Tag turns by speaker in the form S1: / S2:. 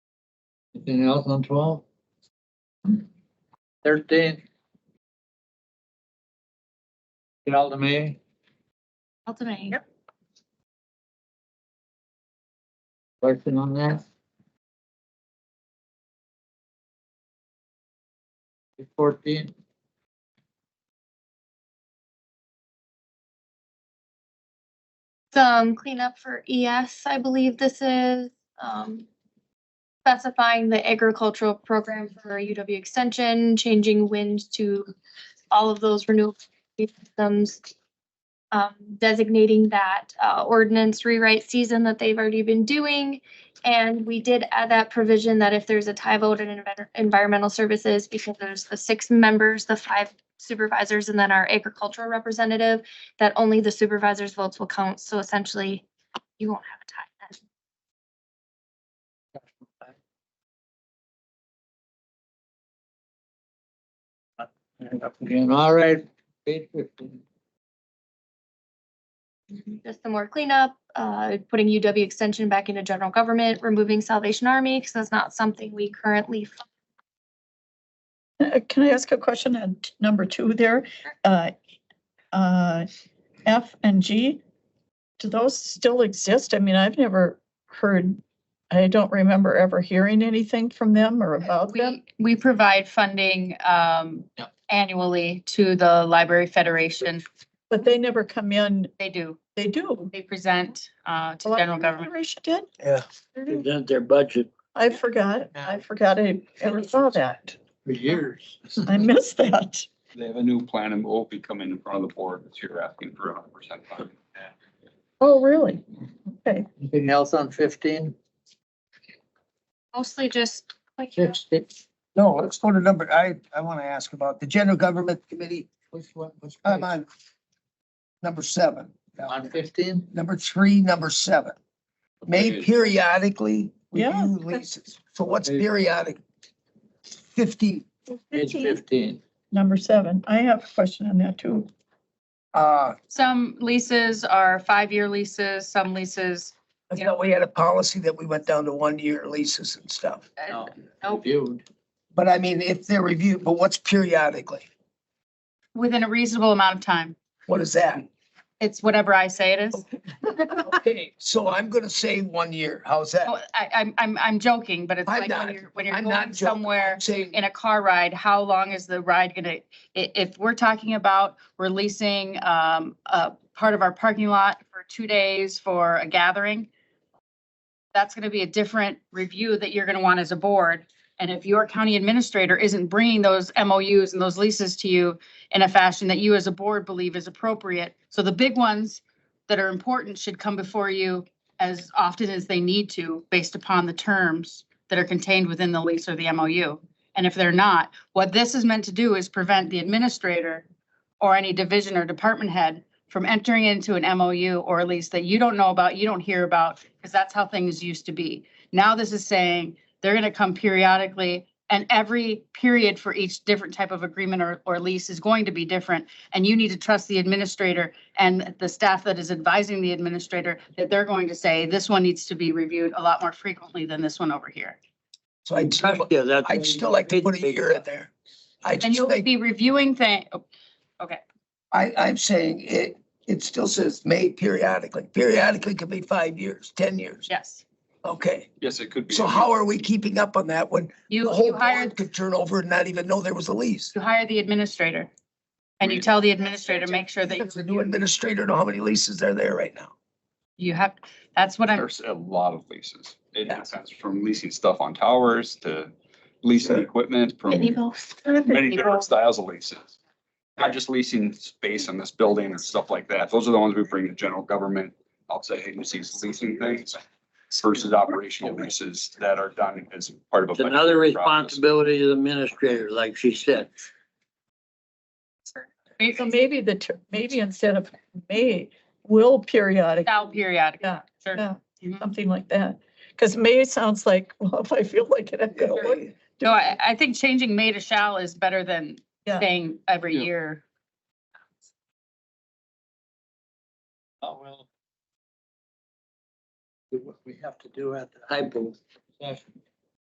S1: Anything else on twelve? Thirteen? Get all to me?
S2: Ultimately.
S3: Yep.
S1: Question on that? Fourteen?
S2: Some cleanup for ES, I believe this is, um, specifying the agricultural program for UW Extension, changing wind to all of those renewable energy systems. Um, designating that, uh, ordinance rewrite season that they've already been doing. And we did add that provision that if there's a tie vote in envi- environmental services, because there's the six members, the five supervisors, and then our agricultural representative, that only the supervisor's votes will count, so essentially you won't have a tie then.
S1: And up again, all right, page fifteen.
S2: Just some more cleanup, uh, putting UW extension back into general government, removing Salvation Army, because that's not something we currently. fund.
S3: Uh, Can I ask a question on t- number two there? Uh, uh, F and G, do those still exist? I mean, I've never heard, I don't remember ever hearing anything from them or about them.
S4: Uh, We, we provide funding um,
S1: Yeah.
S4: annually to the Library Federation.
S3: But they never come in,
S4: They do,
S3: they do.
S4: they present uh,
S3: The
S4: to general
S3: Library
S4: government.
S3: Federation did?
S5: Yeah, present their budget.
S3: I forgot, I forgot I ever saw that.
S1: For years.
S3: I missed that.
S6: They have a new plan and will be coming in front of the board this year asking for a hundred percent funding.
S3: Oh, really? Okay.
S1: Anything else on fifteen?
S2: Mostly just. like, you know,
S1: Sixteen?
S5: No, let's go to number, I, I want to ask about the general government committee.
S1: Which one? Which
S5: I'm
S1: page?
S5: on number seven.
S1: On fifteen?
S5: Number three, number seven. May periodically
S3: Yeah.
S5: review leases. So what's periodic? Fifty,
S1: Page fifteen.
S3: Number seven, I have a question on that too.
S5: uh,
S4: Some leases are five-year leases, some leases,
S5: I thought we had a policy that we went down to one-year leases and stuff.
S4: uh,
S1: No,
S4: nope.
S1: Reviewed.
S5: But I mean, if they're reviewed, but what's periodically?
S4: within a reasonable amount of time.
S5: What is that?
S4: It's whatever I say it is.
S5: Okay, so I'm gonna say one year. How's
S4: Oh,
S5: that?
S4: I, I'm, I'm, I'm joking, but it's
S5: I'm
S4: like when
S5: not-
S4: you're, when you're
S5: I'm not
S4: going
S5: joking.
S4: somewhere.
S5: I'm Saying
S4: in a car ride, how long is the ride gonna, i- if we're talking about releasing um, a part of our parking lot for two days for a gathering, that's gonna be a different review that you're gonna want as a board. And if your county administrator isn't bringing those MOUs and those leases to you in a fashion that you as a board believe is appropriate, so the big ones that are important should come before you as often as they need to, based upon the terms that are contained within the lease or the MOU. And if they're not, what this is meant to do is prevent the administrator or any division or department head from entering into an MOU or a lease that you don't know about, you don't hear about, because that's how things used to be. Now this is saying they're going to come periodically and every period for each different type of agreement or, or lease is going to be different. And you need to trust the administrator and the staff that is advising the administrator that they're going to say, this one needs to be reviewed a lot more frequently than this one over here.
S5: So I'd still,
S7: Yeah, that's.
S5: I'd still like to put a year in there. I
S4: And
S5: just
S4: you'll
S5: think,
S4: be reviewing oh, things.
S5: I, I'm saying it, it still says may periodically. Periodically could be five years, ten years.
S4: yes.
S5: Okay,
S6: Yes, it could be.
S5: so how are we keeping up on that when the
S4: You,
S5: whole
S4: you hired
S5: board could turn over and not even know there was a lease?
S4: you hire the administrator. And you
S6: Right.
S4: tell the administrator, make sure that you-
S5: Does the new administrator know how many leases are there right now?
S4: you have, that's what I'm,
S6: There's a lot of leases. It
S5: Yeah.
S6: depends from leasing stuff on towers to leasing
S5: Sure.
S6: equipment from
S2: Pitney Bowes.
S6: many different styles of leases. Not just leasing space in this building and stuff like that. Those are the ones we bring to general government, outside agencies leasing things versus operational leases that are done as part of
S7: It's
S6: a.
S7: another
S6: budgeting process.
S7: responsibility to the administrator, like she said.
S3: So maybe the, ter- maybe instead of may, will periodic,
S4: now periodic.
S3: Yeah,
S4: Sure.
S3: yeah.
S4: Mhm.
S3: something like that. Because may sounds like, well, if I feel like it, I'm gonna look.
S4: No, I, I think changing may to shall is better than
S3: Yeah.
S4: saying every
S6: Yeah.
S4: year.
S1: Oh, well. Do what we have to do at the
S7: I believe.
S1: session.